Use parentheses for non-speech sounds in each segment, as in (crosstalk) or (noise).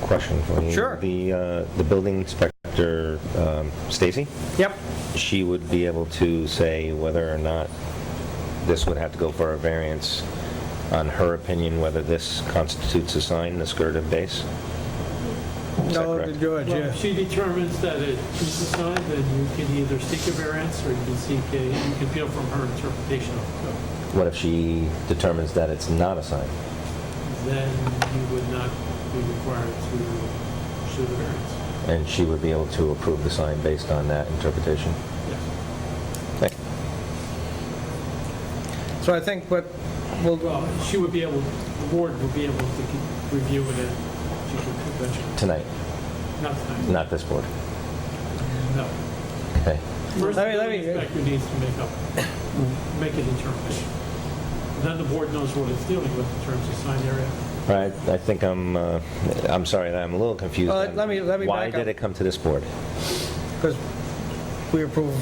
question for you. Sure. The, uh, the building inspector, um, Stacy, Yep. she would be able to say whether or not this would have to go for a variance on her opinion, whether this constitutes a sign, the skirt of base? Is that No, correct? George, Well, yeah. if she determines that it is a sign, then you can either seek a variance or you can seek a, you can appeal from her interpretation of the code. What if she determines that it's not a sign? Then you would not be required to show the variance. And she would be able to approve the sign based on that interpretation? Yes. Thank you. So I think what, we'll Well, she would be able, the board would be able to keep- review it at she could convention. Tonight, Not tonight, not this board. no. Okay. First, the Let me- let me- building inspector needs to make up, make an determination. Then the board knows what it's dealing with in terms of sign area. All right, I think I'm, uh, I'm sorry, that I'm a little confused. Well, on Uh, let me- let me Why back up. did it come to this board? because we approve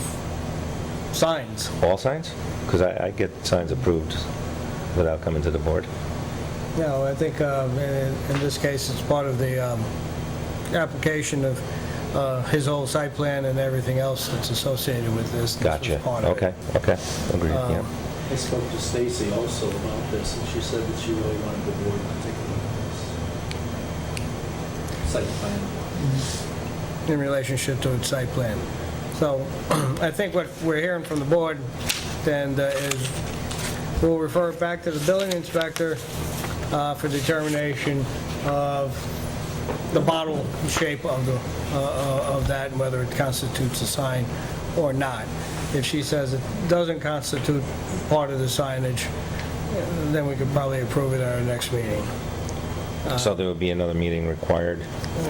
signs. All signs? Because I I get signs approved without coming to the board. No, I think uh, in in this case, it's part of the um, application of uh, his whole site plan and everything else that's associated with this. This was Gotcha. part of it. Okay, okay, agreed, yeah. I spoke to Stacy also about this, and she said that she really wanted the board to take a look at this. Site plan. in relationship to its site plan. So (clears throat) I think what we're hearing from the board then uh, is we'll refer it back to the building inspector uh, for determination of the bottle shape of the, uh, uh, of that and whether it constitutes a sign or not. If she says it doesn't constitute part of the signage, then we could probably approve it at our next meeting. Um, uh, So there would be another meeting required,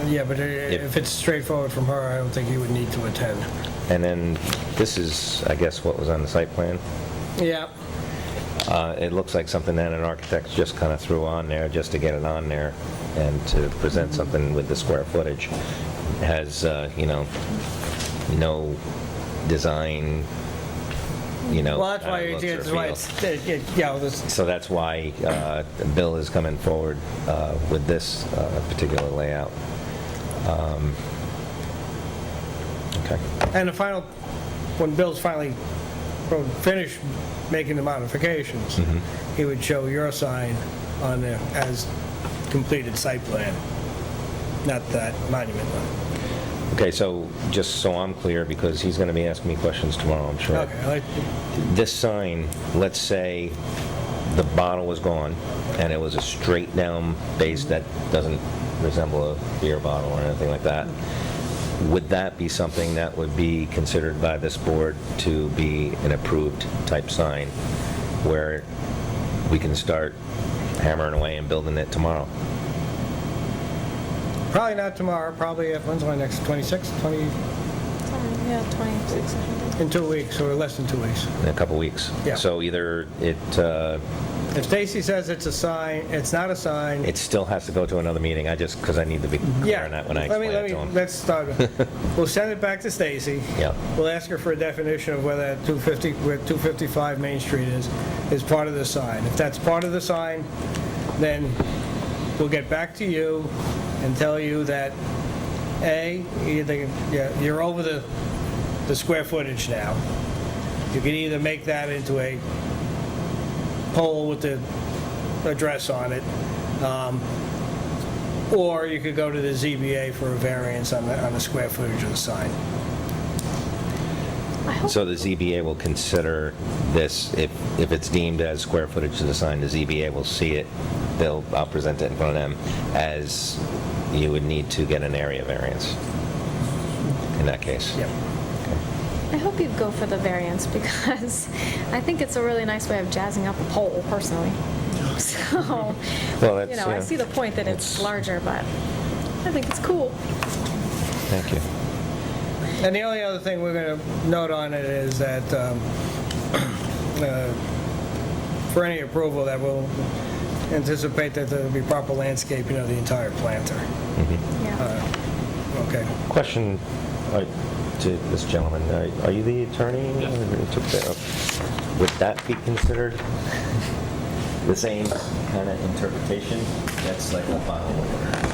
Yeah, but uh, if it's straightforward from her, I don't think you would need to attend. and then this is, I guess, what was on the site plan? Yeah, Uh, It looks like something that an architect just kind of threw on there, just to get it on there, and to present something with the square footage. Has, uh, you know, no design, you know. well, that's why, uh, looks it's- or it's why feels. it's, it- it- you know, this, So that's why uh, Bill is coming forward uh, with this uh, particular layout. Um, Okay, and the final, when Bill's finally pro- finished making the modifications, Mm-hmm. he would show your sign on there as completed site plan, not that monument one. okay, so just so I'm clear, because he's going to be asking me questions tomorrow, I'm sure. Okay, I like, This sign, let's say the bottle was gone, and it was a straight down base that doesn't resemble a beer bottle or anything like that, would that be something that would be considered by this board to be an approved type sign, where we can start hammering away and building it tomorrow? probably not tomorrow, probably, at- when's my next, 26, 20, Something, Yeah, 26 or something. in two weeks, or less than two weeks. In a couple weeks? Yeah. So either it, uh, If Stacy says it's a sign, it's not a sign, it still has to go to another meeting, I just, because I need to be clear Yeah. on that when I Let me- explain let it to me- them. Let's start. (laughs) We'll send it back to Stacy. Yeah. We'll ask her for a definition of whether that 250, where 255 Main Street is, is part of the sign. If that's part of the sign, then we'll get back to you and tell you that, A, you think- yeah, you're over the, the square footage now. You can either make that into a pole with the address on it, um, or you could go to the ZBA for a variance on the, on the square footage of the sign. I hope So the ZBA will consider this, if, if it's deemed as square footage to the sign, the ZBA will see it, they'll, I'll present it in front of them as you would need to get an area variance in that case. Yep. I hope you go for the variance because (laughs) I think it's a really nice way of jazzing up a poll, personally. (laughs) So, Well, that's, you know, I yeah. see the point that it's It's- larger, but I think it's cool. Thank you. And the only other thing we're going to note on it is that um, (clears throat) uh, for any approval, that we'll anticipate that there'll be proper landscaping of the entire planter. Yeah. Okay. Question uh, to this gentleman, Are- are you the attorney? Yes. who took that up? Would that be considered the same kind of interpretation? That's like a final order.